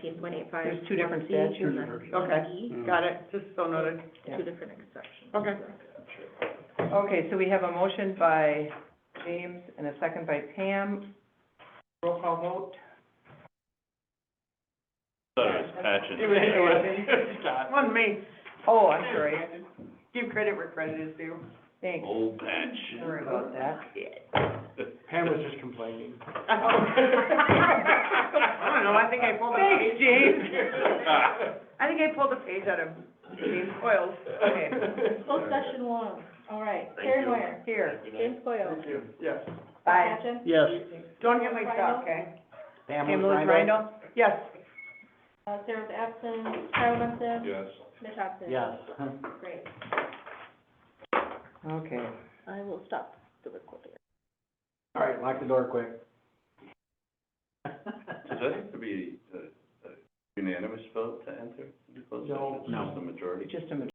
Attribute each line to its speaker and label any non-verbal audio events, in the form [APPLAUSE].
Speaker 1: fifteen point eight five.
Speaker 2: There's two different statutes. Okay, got it, just so noted. Yeah.
Speaker 1: E, Two different exceptions.
Speaker 2: Okay. Okay, so we have a motion by James and a second by Pam. Roll call vote.
Speaker 3: Thought it was patching.
Speaker 2: It was- it was-
Speaker 4: One me,
Speaker 2: Oh, I'm sorry,
Speaker 4: give credit where credit is due.
Speaker 2: thanks.
Speaker 3: Old patch.
Speaker 2: Sorry about that.
Speaker 4: [LAUGHS]
Speaker 5: Pam was just
Speaker 2: [LAUGHS]
Speaker 5: complaining.
Speaker 4: I don't know, I think I pulled a page.
Speaker 2: Thanks, James.
Speaker 4: I think I pulled a page out of James Coyle's.
Speaker 2: Okay,
Speaker 1: [LAUGHS] Closed session one, all right,
Speaker 3: Thank
Speaker 1: Karen
Speaker 3: you.
Speaker 1: Moyer,
Speaker 2: here,
Speaker 1: James Coyle,
Speaker 5: Yes.
Speaker 2: Bye.
Speaker 1: Patchen,
Speaker 5: Yes.
Speaker 4: Don't get my stuff, okay?
Speaker 2: Pam Lewis Rhino,
Speaker 4: Yes.
Speaker 1: uh, Sarah's absent, Kyle Munson,
Speaker 3: Yes.
Speaker 1: Mitch Hobson. Great,
Speaker 2: okay.
Speaker 1: I will stop the recording.
Speaker 5: [LAUGHS] All right, lock the door quick. [LAUGHS]
Speaker 3: Does that have to be a- a unanimous vote to enter the closed
Speaker 5: No.
Speaker 3: session? Just the majority?
Speaker 2: Just a minute.